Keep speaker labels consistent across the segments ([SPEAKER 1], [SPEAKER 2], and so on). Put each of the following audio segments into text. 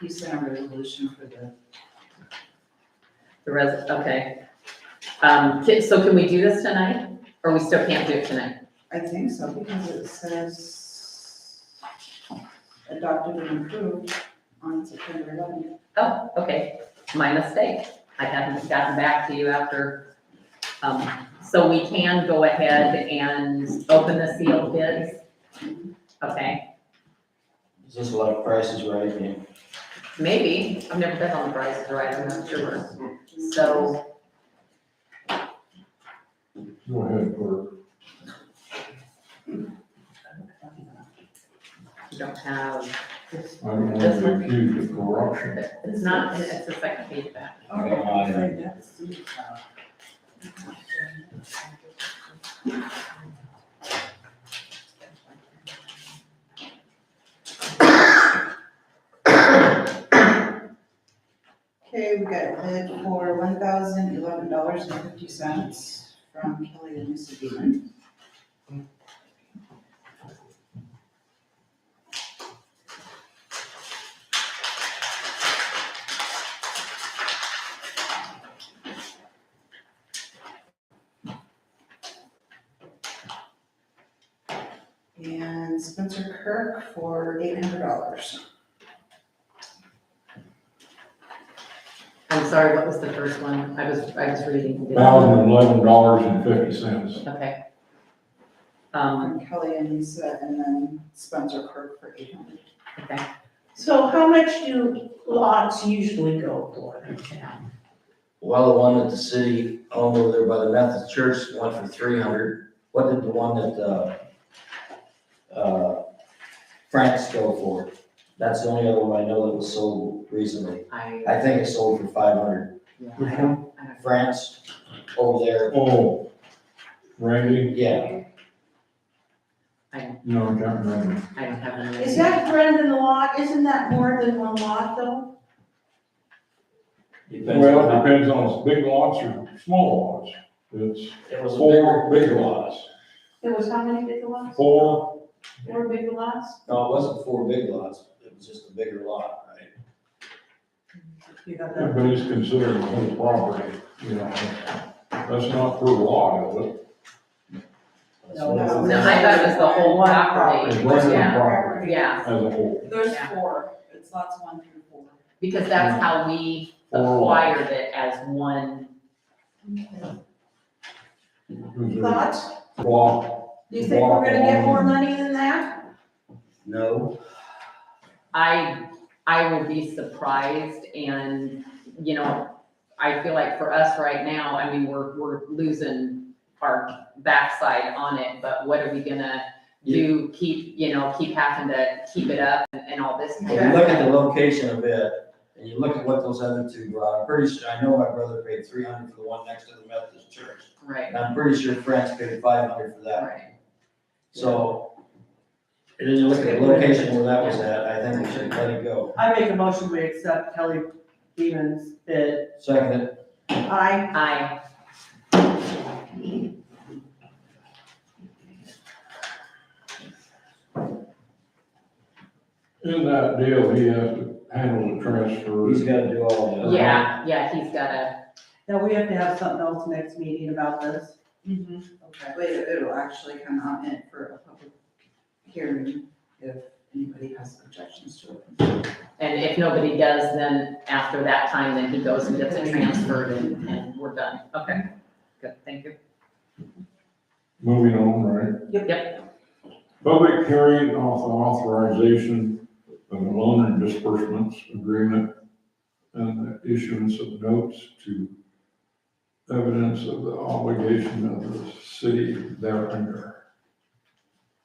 [SPEAKER 1] He sent a resolution for the,
[SPEAKER 2] The res, okay. Um, ca- so can we do this tonight, or we still can't do it tonight?
[SPEAKER 1] I think so, because it says adopted and approved on September eleventh.
[SPEAKER 2] Oh, okay, my mistake, I hadn't gotten back to you after, um, so we can go ahead and open the sealed bids? Okay,
[SPEAKER 3] Is this like prices right and
[SPEAKER 2] maybe, I've never been on the prices right, I'm not sure,
[SPEAKER 1] Mm-hmm.
[SPEAKER 2] so,
[SPEAKER 4] Go ahead, Bert.
[SPEAKER 2] you don't have,
[SPEAKER 4] I don't want to be accused of corruption.
[SPEAKER 2] it's not, it's the second page back.
[SPEAKER 1] Okay, we got bid for one thousand eleven dollars and fifty cents from Kelly and Mrs. Beeman. And Spencer Kirk for eight hundred dollars.
[SPEAKER 2] I'm sorry, what was the first one? I was, I was reading.
[SPEAKER 4] Thousand eleven dollars and fifty cents.
[SPEAKER 2] Okay. Um,
[SPEAKER 1] From Kelly and Lisa, and then Spencer Kirk for eight hundred.
[SPEAKER 2] okay,
[SPEAKER 5] So how much do lots usually go for?
[SPEAKER 3] Well, the one that the city owned over there by the Methodist Church went for three hundred. What did the one that, uh, uh, Frank's go for? That's the only other one I know that was sold recently.
[SPEAKER 2] I,
[SPEAKER 3] I think it sold for five hundred.
[SPEAKER 2] I don't, I don't,
[SPEAKER 3] France over there,
[SPEAKER 4] Oh, Randy,
[SPEAKER 3] yeah,
[SPEAKER 4] no, I can't remember.
[SPEAKER 2] I don't have any.
[SPEAKER 5] Is that Brendan lot, isn't that more than one lot though?
[SPEAKER 3] depends on
[SPEAKER 4] Well, it
[SPEAKER 3] how,
[SPEAKER 4] depends on if it's big lots or small lots. It's
[SPEAKER 3] it was a
[SPEAKER 4] four big lots,
[SPEAKER 5] There was how many big lots,
[SPEAKER 4] four,
[SPEAKER 5] four big lots?
[SPEAKER 3] big, no, it wasn't four big lots, it was just a bigger lot, right?
[SPEAKER 1] You got that?
[SPEAKER 4] but it's considered a whole property, you know. That's not per lot, is it?
[SPEAKER 3] That's what it
[SPEAKER 1] No,
[SPEAKER 3] was.
[SPEAKER 2] No, I thought it was the whole property.
[SPEAKER 4] It's rented
[SPEAKER 2] Yeah.
[SPEAKER 4] property
[SPEAKER 2] Yeah,
[SPEAKER 4] as a whole.
[SPEAKER 1] There's
[SPEAKER 2] Yeah.
[SPEAKER 1] four, it's lots one through four.
[SPEAKER 2] because that's how we
[SPEAKER 3] Oh.
[SPEAKER 4] Four lots.
[SPEAKER 2] acquired it as one,
[SPEAKER 4] Considered
[SPEAKER 5] Thoughts?
[SPEAKER 4] Block,
[SPEAKER 5] Do you think we're gonna get more money than that?
[SPEAKER 3] No,
[SPEAKER 2] I, I would be surprised and, you know, I feel like for us right now, I mean, we're, we're losing our backside on it, but what are we gonna do? Keep, you know, keep having to keep it up and, and all this.
[SPEAKER 3] when you look at the location of it, and you look at what those other two brought, I'm pretty sure, I know my brother paid three hundred for the one next to the Methodist church.
[SPEAKER 2] Right,
[SPEAKER 3] And I'm pretty sure France paid five hundred for that,
[SPEAKER 2] right.
[SPEAKER 3] so. And then you look at the location where that was at, I think we should let it go.
[SPEAKER 6] I make a motion, we accept Kelly Beeman's bid.
[SPEAKER 3] Second, it.
[SPEAKER 6] I,
[SPEAKER 2] I,
[SPEAKER 4] in that deal, he has to handle the transfer.
[SPEAKER 3] he's gotta do all of that.
[SPEAKER 2] Yeah, yeah, he's got a,
[SPEAKER 6] now we have to have something else next meeting about this.
[SPEAKER 1] Okay, but it- it'll actually come out in for a public hearing if anybody has objections to it.
[SPEAKER 2] and if nobody does, then after that time, then he goes and gets it transferred and, and we're done. Okay, good, thank you.
[SPEAKER 4] Moving on, right?
[SPEAKER 6] Yep.
[SPEAKER 4] Public hearing of authorization of loan and disbursements agreement and the issuance of notes to evidence of the obligation of the city thereunder.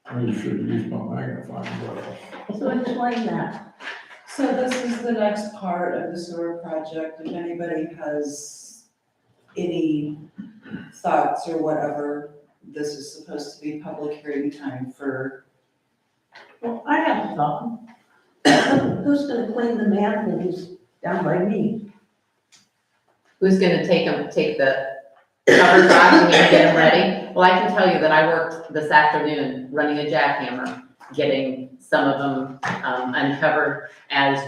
[SPEAKER 4] I should use my magnifying glass.
[SPEAKER 6] So explain that.
[SPEAKER 1] So this is the next part of the sewer project. If anybody has any thoughts or whatever, this is supposed to be public hearing time for.
[SPEAKER 5] Well, I have a thought. Who's gonna clean the manholes down by me?
[SPEAKER 2] Who's gonna take him, take the cover off and get him ready? Well, I can tell you that I worked this afternoon running a jackhammer, getting some of them, um, uncovered as